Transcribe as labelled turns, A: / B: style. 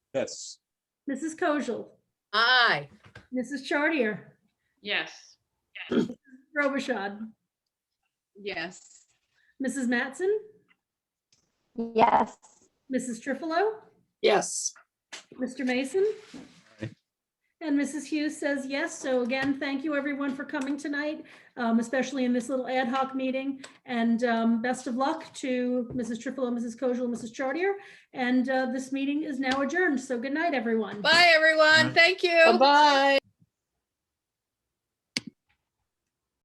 A: Yes.
B: Mrs. Kojal,
C: Aye.
B: Mrs. Chartier,
D: Yes.
B: Robichaud,
D: Yes.
B: Mrs. Matson,
E: Yes.
B: Mrs. Trifilo,
C: Yes.
B: Mr. Mason. And Mrs. Hughes says yes. So again, thank you everyone for coming tonight, um, especially in this little ad hoc meeting. And um, best of luck to Mrs. Trifilo, Mrs. Kojal, and Mrs. Chartier. And uh, this meeting is now adjourned. So good night, everyone.
C: Bye, everyone. Thank you.
D: Bye-bye.